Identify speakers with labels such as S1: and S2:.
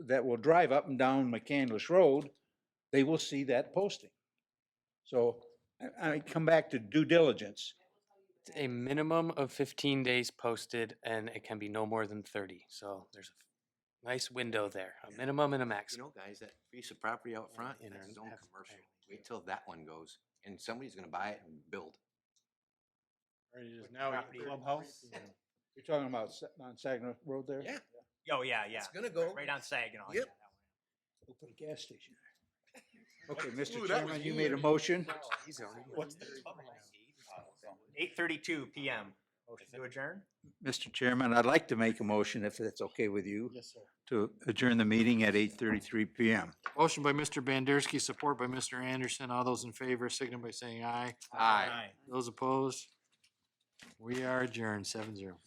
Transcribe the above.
S1: that will drive up and down McCandless Road, they will see that posting. So I, I come back to due diligence.
S2: It's a minimum of 15 days posted and it can be no more than 30. So there's a nice window there, a
S3: Yeah.
S2: minimum and a
S3: You
S2: maximum.
S3: know, guys, that piece of property out front,
S2: in
S3: that's
S2: our
S3: his own
S2: F-
S3: commercial.
S2: area.
S3: Wait till that one goes, and somebody's gonna buy it and build.
S4: Or it is now a clubhouse?
S1: You're talking about Sa- on Saginaw Road there?
S3: Yeah.
S5: Oh, yeah, yeah.
S3: It's gonna go.
S5: Right on Saginaw.
S3: Yep.
S1: We'll put a gas station there. Okay, Mr.
S3: Ooh, that was
S1: Chairman, you made a motion?
S4: What's the
S5: Eight thirty-two PM. Motion to adjourn?
S1: Mr. Chairman, I'd like to make a motion, if that's okay with you,
S4: Yes, sir.
S1: to adjourn the meeting at eight thirty-three PM.
S4: Motion by Mr. Bandersky, support by Mr. Anderson. All those in favor, signal by saying aye.
S3: Aye.
S4: Those opposed? We are adjourned, seven zero.